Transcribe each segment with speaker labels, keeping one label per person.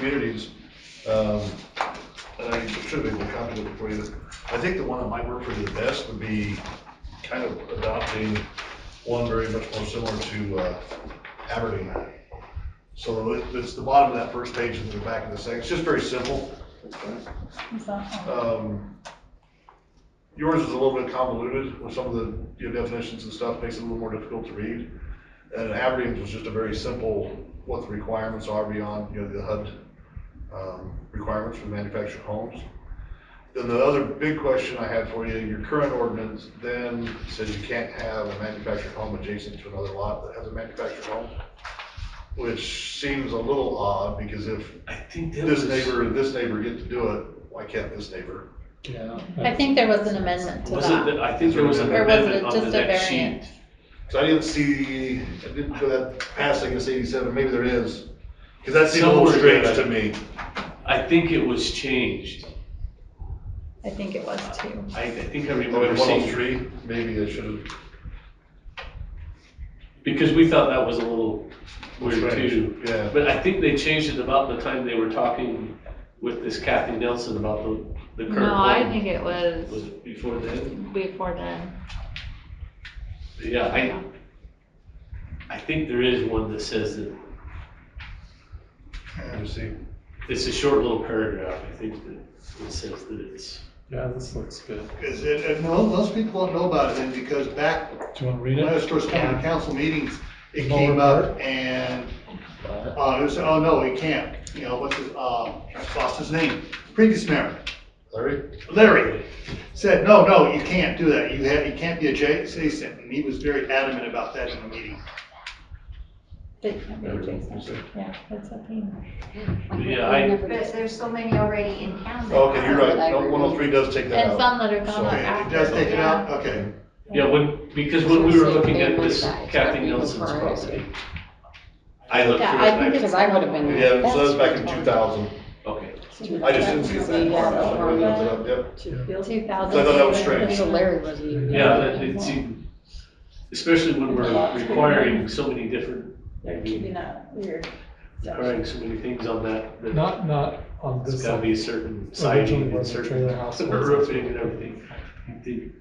Speaker 1: communities, um, and I should have been copied it before you. I think the one that might work for you the best would be kind of adopting one very much more similar to uh, Aberdeen. So it- it's the bottom of that first page and the back of the second, it's just very simple.
Speaker 2: Is that all?
Speaker 1: Um, Yours is a little bit convoluted with some of the, you know, definitions and stuff, makes it a little more difficult to read. And Aberdeen's was just a very simple, what the requirements are beyond, you know, the HUD um, requirements for manufactured homes. Then the other big question I had for you, your current ordinance then says you can't have a manufactured home adjacent to another lot that has a manufactured home, which seems a little odd, because if
Speaker 3: I think that
Speaker 1: this
Speaker 3: was-
Speaker 1: neighbor and this neighbor get to do it, why can't this neighbor?
Speaker 3: Yeah.
Speaker 2: I think there was an amendment to
Speaker 3: Was it,
Speaker 2: that.
Speaker 3: that- I think there was an
Speaker 2: Or was it
Speaker 3: amendment on the
Speaker 2: just a
Speaker 3: next sheet.
Speaker 2: variant?
Speaker 1: So I didn't see, I didn't go that past, I guess eighty-seven, maybe there is, because that seemed a little
Speaker 3: Somewhere
Speaker 1: strange
Speaker 3: there.
Speaker 1: to me.
Speaker 3: I think it was changed.
Speaker 2: I think it was too.
Speaker 3: I, I think I
Speaker 1: Maybe one
Speaker 3: remember
Speaker 1: oh
Speaker 3: seeing,
Speaker 1: three, maybe I should have,
Speaker 3: because we thought that was a little weird
Speaker 1: Strange,
Speaker 3: too.
Speaker 1: yeah.
Speaker 3: But I think they changed it about the time they were talking with this Kathy Nelson about the, the current one.
Speaker 4: No, I think it
Speaker 3: Was
Speaker 4: was
Speaker 3: it before then?
Speaker 4: before then.
Speaker 3: Yeah, I, I think there is one that says that,
Speaker 1: let me see.
Speaker 3: it's a short little paragraph, I think that it says that it's.
Speaker 5: Yeah, this looks good.
Speaker 1: Because, and, and mo- most people don't know about it, and because back,
Speaker 5: Do you want to read
Speaker 1: when I
Speaker 5: it?
Speaker 1: was first coming to council meetings, it
Speaker 5: Lower
Speaker 1: came up
Speaker 5: part?
Speaker 1: and, uh, it was, oh, no, we can't, you know, what's his, uh, I lost his name, previous mayor. Larry? Larry said, no, no, you can't do that, you had, you can't be adjacent, and he was very adamant about that in the meeting.
Speaker 2: They can't be adjacent. Yeah, that's a thing.
Speaker 3: Yeah, I,
Speaker 6: But there's so many already in town. that
Speaker 1: Okay, you're
Speaker 6: are,
Speaker 1: right,
Speaker 6: like,
Speaker 1: no, one oh three does take that
Speaker 2: And
Speaker 1: out.
Speaker 2: some that are gone
Speaker 1: So-
Speaker 6: Yeah, it
Speaker 2: after.
Speaker 6: does take it out.
Speaker 1: okay.
Speaker 3: yeah, when, because when we were looking at this Kathy Nelson's property, I looked
Speaker 7: Yeah, I
Speaker 3: through
Speaker 7: think,
Speaker 3: it and
Speaker 7: because I would have been.
Speaker 1: Yeah, so that's back in two thousand,
Speaker 3: I, okay,
Speaker 1: I just didn't see that part, I
Speaker 7: Yeah,
Speaker 1: looked it up, yep.
Speaker 2: Two
Speaker 1: So I thought that was
Speaker 2: thousand.
Speaker 1: strange.
Speaker 7: So Larry wasn't even.
Speaker 3: yeah, that, it seemed, especially when we're requiring so many different,
Speaker 2: They're keeping that weird.
Speaker 3: requiring so many things on that, that
Speaker 5: Not, not on
Speaker 3: it's
Speaker 5: this
Speaker 3: gotta
Speaker 5: side.
Speaker 3: be a certain siding
Speaker 5: Originally
Speaker 3: and
Speaker 5: was a
Speaker 3: certain
Speaker 5: trailer house.
Speaker 3: roofing and everything. I think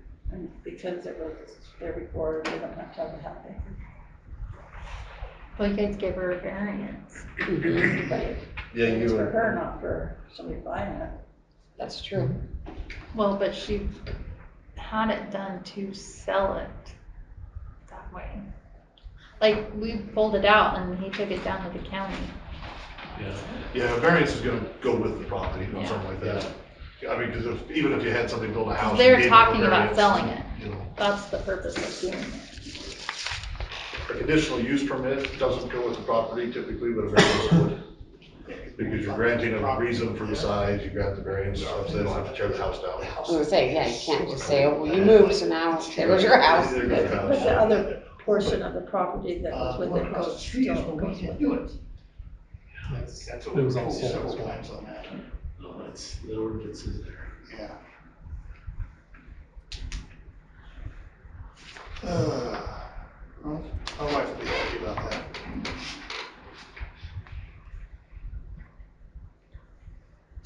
Speaker 2: Because it was there before, they don't have to have it happen.
Speaker 4: Well, you guys gave her a variance.
Speaker 1: Yeah, you were.
Speaker 2: her, not for somebody buying it.
Speaker 7: That's true.
Speaker 4: Well, but she had it done to sell it that way. Like, we pulled it out and he took it down to the county.
Speaker 1: Yeah, a variance is gonna go with the property or something like that. I mean, because if, even if you had somebody build a house.
Speaker 4: They're
Speaker 1: you gave them a
Speaker 4: talking about
Speaker 1: variance,
Speaker 4: selling it.
Speaker 1: you know.
Speaker 4: That's the purpose of doing it.
Speaker 1: A conditional use permit doesn't go with the property typically, but a variance would. Because you're granting a reason for the size, you grant the variance, so they don't have to tear the house down.
Speaker 7: I was gonna say, yeah, you can't just say, oh, well, you moved, so now there goes your house.
Speaker 1: There goes your house.
Speaker 2: But the other portion of the property that was with the coast still goes with it.
Speaker 5: Yes.
Speaker 8: That's
Speaker 5: It
Speaker 8: what we've
Speaker 5: was
Speaker 8: told
Speaker 5: also.
Speaker 8: several times on that,
Speaker 3: No, that's, the ordinance is there.
Speaker 8: yeah. Uh, well, My wife will be happy about that.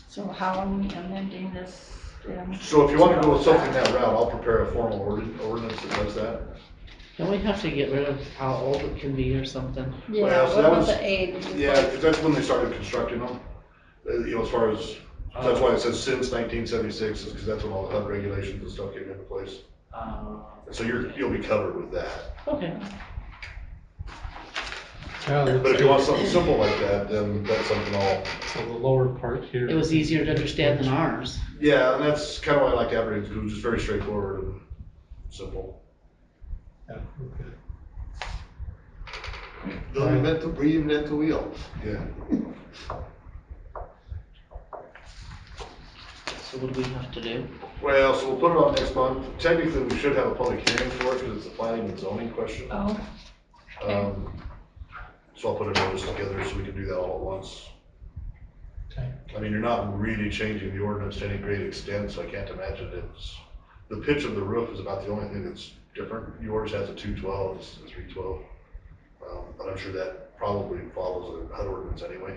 Speaker 2: So how are we amending this? um,
Speaker 1: So if you want to go with something that route, I'll prepare a formal ordin- ordinance that does that.
Speaker 9: Don't we have to get rid of how old it can be or something?
Speaker 4: Yeah,
Speaker 1: Well, so
Speaker 4: what
Speaker 1: that
Speaker 4: about
Speaker 1: was-
Speaker 4: the age? It's
Speaker 1: Yeah,
Speaker 4: like-
Speaker 1: 'cause that's when they started constructing them, Uh, you know, as far as, that's why it says since nineteen seventy-six, is because that's when all the HUD regulations and stuff came into place. So you're, you'll be covered with that.
Speaker 9: Okay.
Speaker 5: Yeah,
Speaker 1: But
Speaker 5: it
Speaker 1: if
Speaker 5: looks
Speaker 1: you want
Speaker 5: good.
Speaker 1: something simple like that, then that's something I'll,
Speaker 5: So the lower part here.
Speaker 9: It was easier to understand than ours.
Speaker 1: yeah, and that's kind of why I like Aberdeen, because it was just very straightforward and simple.
Speaker 5: Yeah, okay.
Speaker 8: They'll
Speaker 5: Um,
Speaker 8: invent the, reinvent the wheel.
Speaker 1: Yeah.
Speaker 9: So what do we have to do?
Speaker 1: Well, so we'll put it on next month. Technically, we should have a public hearing for it, because it's a planning and zoning question.
Speaker 2: Oh,
Speaker 1: Um, So I'll put a notice together so we can do that all at once.
Speaker 5: Okay.
Speaker 1: I mean, you're not really changing the ordinance to any great extent, so I can't imagine it's, the pitch of the roof is about the only thing that's different. Yours has a two twelve, it's a three twelve. Um, but I'm sure that probably follows a HUD ordinance anyway.